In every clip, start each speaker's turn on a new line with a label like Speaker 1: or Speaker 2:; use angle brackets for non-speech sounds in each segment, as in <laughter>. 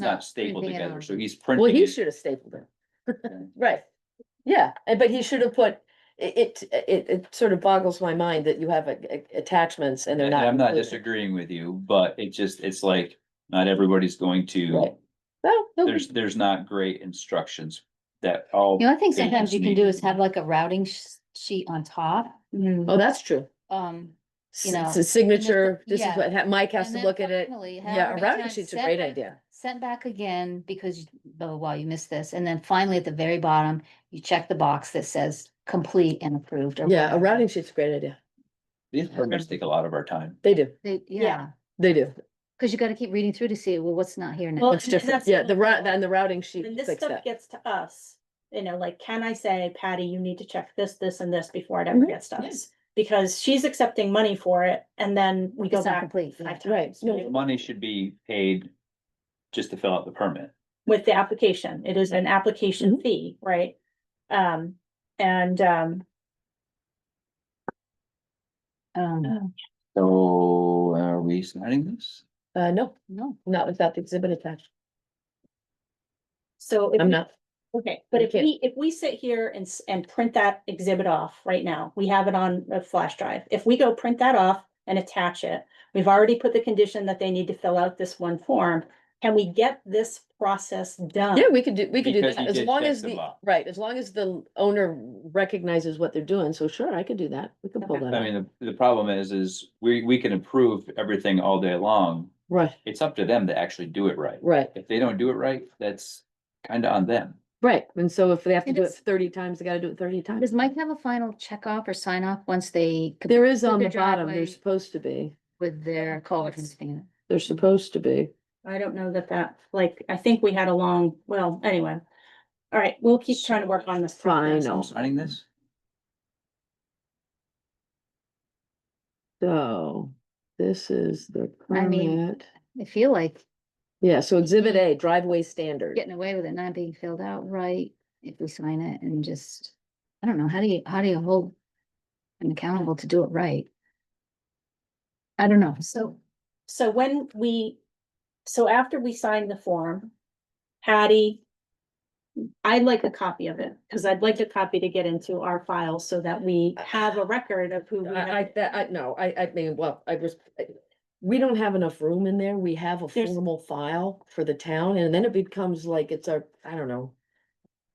Speaker 1: not stapled
Speaker 2: printing it
Speaker 1: together,
Speaker 2: on.
Speaker 1: so he's
Speaker 3: Well,
Speaker 1: printing
Speaker 3: he
Speaker 1: it.
Speaker 3: should have stapled it.
Speaker 1: Okay.
Speaker 3: <laughs> Right, yeah, and- but he should have put, it, it, it, it sort of boggles my mind that you have a- a- attachments and they're
Speaker 1: And
Speaker 3: not.
Speaker 1: I'm not
Speaker 3: included.
Speaker 1: disagreeing with you, but it just, it's like, not everybody's going to,
Speaker 3: Right. Well, no,
Speaker 1: there's, there's not great instructions that all.
Speaker 2: The only thing sometimes you can do is
Speaker 1: Interesting.
Speaker 2: have like a routing sh- sheet on top,
Speaker 3: oh, that's true.
Speaker 2: um. You know,
Speaker 3: It's a signature, this is
Speaker 2: yeah.
Speaker 3: what, ha- Mike has
Speaker 2: and
Speaker 3: to
Speaker 2: then
Speaker 3: look at it.
Speaker 2: finally,
Speaker 3: Yeah,
Speaker 2: however
Speaker 3: a
Speaker 2: many
Speaker 3: routing
Speaker 2: times,
Speaker 3: sheet's a
Speaker 2: send
Speaker 3: great
Speaker 2: back-
Speaker 3: idea.
Speaker 2: Sent back again because, you- oh, wow, you missed this. And then finally at the very bottom, you check the box that says complete and approved. or
Speaker 3: Yeah, a
Speaker 2: whatever.
Speaker 3: routing sheet's a great idea.
Speaker 1: These permits take a lot of our time.
Speaker 3: They do,
Speaker 2: They- Yeah,
Speaker 3: they do.
Speaker 2: because you gotta keep reading through to see, well, what's not here now?
Speaker 4: Well,
Speaker 3: It's different.
Speaker 4: that's
Speaker 3: Yeah,
Speaker 4: what
Speaker 3: the
Speaker 4: I'm
Speaker 3: route,
Speaker 4: saying.
Speaker 3: and the routing sheet
Speaker 4: When this
Speaker 3: fixed
Speaker 4: stuff
Speaker 3: that.
Speaker 4: gets to us, you know, like, can I say, Patty, you need to check this, this, and this before it ever
Speaker 3: Mhm.
Speaker 4: gets to us? Because she's accepting money for it, and then we go
Speaker 2: It's not
Speaker 4: back
Speaker 2: complete. yeah.
Speaker 4: five
Speaker 3: Right,
Speaker 4: times
Speaker 3: no.
Speaker 4: with-
Speaker 1: Money should be paid just to fill out the permit.
Speaker 4: with the application. It is an
Speaker 3: Mm-hmm.
Speaker 4: application fee, right? Um, and, um,
Speaker 2: Um,
Speaker 1: So are we signing this?
Speaker 3: Uh, no,
Speaker 2: no,
Speaker 3: not without the exhibit attached.
Speaker 4: so. if
Speaker 3: I'm
Speaker 4: we-
Speaker 3: not,
Speaker 4: Okay, but
Speaker 3: You
Speaker 4: if
Speaker 3: can't-
Speaker 4: we, if we sit here and, s- and print that exhibit off right now, we have it on a flash drive. If we go print that off and attach it, we've already put the condition that they need to fill out this one form. Can we get this process done?
Speaker 3: yeah, we could do, we could do
Speaker 1: Um, Because
Speaker 3: that,
Speaker 1: you
Speaker 3: as
Speaker 1: did
Speaker 3: long
Speaker 1: check
Speaker 3: as
Speaker 1: them
Speaker 3: the,
Speaker 1: up.
Speaker 3: right, as long as the owner recognizes what they're doing, so sure, I could do that, we could pull
Speaker 4: Okay.
Speaker 3: that
Speaker 1: I
Speaker 3: out,
Speaker 1: mean, the, the problem is, is we, we can approve everything all day long.
Speaker 3: right,
Speaker 1: It's up to them to actually do it right.
Speaker 3: right.
Speaker 1: If they don't do it right, that's kind of on them.
Speaker 3: Right, and so if they have to
Speaker 2: And
Speaker 3: do it
Speaker 2: it's-
Speaker 3: thirty times, they gotta do it thirty times.
Speaker 2: does Mike have a final check off or sign off once they, complete
Speaker 3: There is
Speaker 2: with
Speaker 3: on the
Speaker 2: their
Speaker 3: bottom, they're
Speaker 2: driveway-
Speaker 3: supposed to be,
Speaker 2: with their culvert and
Speaker 4: Yes.
Speaker 2: everything?
Speaker 3: they're supposed to be.
Speaker 4: I don't know that that, like, I think we had a long, well, anyway. All right, we'll keep trying to work on this. process.
Speaker 3: Final.
Speaker 1: I'm signing this?
Speaker 3: So, this is the
Speaker 2: I mean-
Speaker 3: permit.
Speaker 2: I feel like
Speaker 3: Yeah, so exhibit A, driveway standard.
Speaker 2: getting away with it not being filled out right if we sign it and just, I don't know, how do you, how do you hold them accountable to do it right? I don't know, so,
Speaker 4: So when we, so after we sign the form, Patty, I'd like a copy of it, because I'd like a copy to get into our file so that we have a record of who we
Speaker 3: Uh, I, I,
Speaker 4: have.
Speaker 3: that, I, no, I, I mean, well, I just, I- we don't have enough room in there, we have a
Speaker 4: There's-
Speaker 3: formal file for the town, and then it becomes like it's our, I don't know.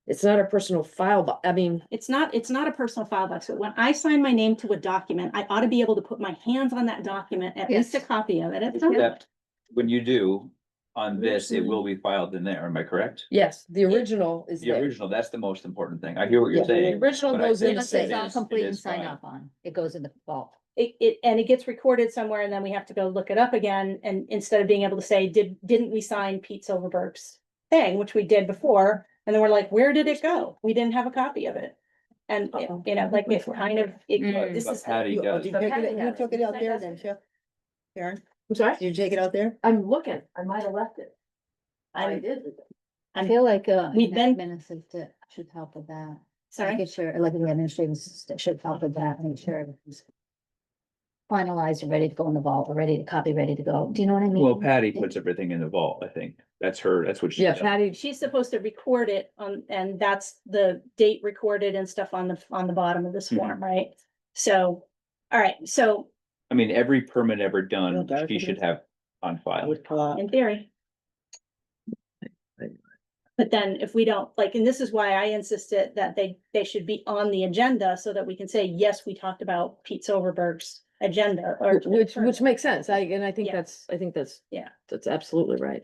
Speaker 3: It's not a personal file, but, I mean,
Speaker 4: It's not, it's not a personal file box, but when I sign my name to a document, I ought to be able to put my hands on that document, at least a
Speaker 2: Yes.
Speaker 4: copy of it at some point.
Speaker 1: That- When you do, on this, it will be filed in there, am I correct?
Speaker 3: yes, the original is
Speaker 1: The
Speaker 3: there.
Speaker 1: original, that's the most important thing. I hear what
Speaker 3: Yeah,
Speaker 1: you're
Speaker 3: the
Speaker 1: saying.
Speaker 3: original
Speaker 1: but I
Speaker 3: goes
Speaker 1: think
Speaker 3: in the
Speaker 2: unless
Speaker 1: Yes, it
Speaker 2: it's
Speaker 3: safe.
Speaker 2: all
Speaker 1: is- it
Speaker 2: complete and
Speaker 1: is
Speaker 2: sign
Speaker 1: fine.
Speaker 2: off on, it goes in the vault.
Speaker 4: It, it, and it gets recorded somewhere and then we have to go look it up again. And instead of being able to say, did, didn't we sign Pete Silverberg's thing, which we did before? And then we're like, where did it go? We didn't have a copy of it. And, it-
Speaker 3: Uh-oh.
Speaker 4: you know, like it's kind of,
Speaker 2: Mm.
Speaker 4: it, this
Speaker 1: But
Speaker 4: is.
Speaker 1: Patty
Speaker 5: You oh,
Speaker 1: does.
Speaker 5: did you
Speaker 3: But
Speaker 5: take
Speaker 3: Patty
Speaker 5: it- you
Speaker 3: had it.
Speaker 5: took it out there then,
Speaker 4: Fantastic.
Speaker 5: Jeff? Karen,
Speaker 3: I'm sorry?
Speaker 5: did you take it out there?
Speaker 3: I'm looking, I might have left it. I did.
Speaker 2: I
Speaker 4: I'm-
Speaker 2: feel like, uh,
Speaker 4: we've
Speaker 2: an
Speaker 4: been-
Speaker 2: administrative should help with that.
Speaker 4: Sorry.
Speaker 2: Making sure, like, the administrative assistant should help with that, make sure everything's finalized and ready to go in the vault, or ready to copy, ready to go, do you know what I mean?
Speaker 1: Well, Patty puts everything in the vault, I think. That's her, that's what she
Speaker 3: Yeah,
Speaker 1: does.
Speaker 3: Patty,
Speaker 4: She's supposed to record it on, and that's the date recorded and stuff on the, on the bottom of this
Speaker 1: Mhm.
Speaker 4: form, right? So, all right, so
Speaker 1: I mean, every permit ever done,
Speaker 5: Well,
Speaker 1: she should have on file.
Speaker 5: Would uh, pop.
Speaker 4: in theory. But then if we don't, like, and this is why I insisted that they, they should be on the agenda so that we can say, yes, we talked about Pete Silverberg's agenda or.
Speaker 3: which, which makes sense, I, and I think
Speaker 4: Yeah.
Speaker 3: that's, I think that's.
Speaker 4: Yeah.
Speaker 3: That's absolutely right.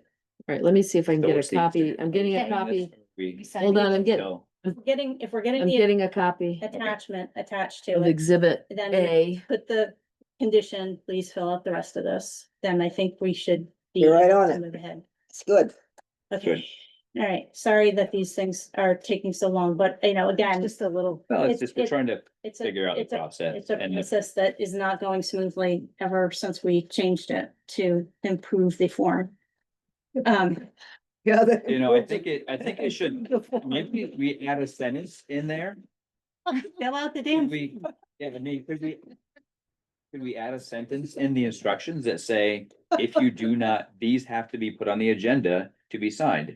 Speaker 3: All right, let me see if I can
Speaker 1: So
Speaker 3: get
Speaker 1: it's
Speaker 3: a
Speaker 1: the-
Speaker 3: copy, I'm getting a
Speaker 2: Okay.
Speaker 3: copy,
Speaker 1: We,
Speaker 2: Sign
Speaker 3: hold
Speaker 2: it.
Speaker 3: on, I'm getting,
Speaker 1: no,
Speaker 4: Getting, if we're getting
Speaker 3: I'm
Speaker 4: the
Speaker 3: getting a copy
Speaker 4: attachment attached to
Speaker 3: of
Speaker 4: it,
Speaker 3: exhibit
Speaker 4: then we
Speaker 3: A.
Speaker 4: put the condition, please fill out the rest of this, then I think we should. be
Speaker 5: You're right on
Speaker 4: able to
Speaker 5: it.
Speaker 4: Move ahead.
Speaker 5: It's good. <laughs>
Speaker 4: Okay, all right, sorry that these things are taking so long, but you know, again,
Speaker 2: Just a little.
Speaker 1: well, it's
Speaker 4: It's-
Speaker 1: just, we're
Speaker 4: it's-
Speaker 1: trying to
Speaker 4: it's a,
Speaker 1: figure out the
Speaker 4: it's a
Speaker 1: process.
Speaker 4: It's a
Speaker 1: and if-
Speaker 4: process that is not going smoothly ever since we changed it to improve the form. Um,
Speaker 5: Yeah.
Speaker 1: You know, I think it, I think it should, maybe we add a sentence in there.
Speaker 4: fill out the damn.
Speaker 1: Could we, yeah, I mean, could we? Could we add a sentence in the instructions that say, if you do not, these have to be put on the agenda to be signed.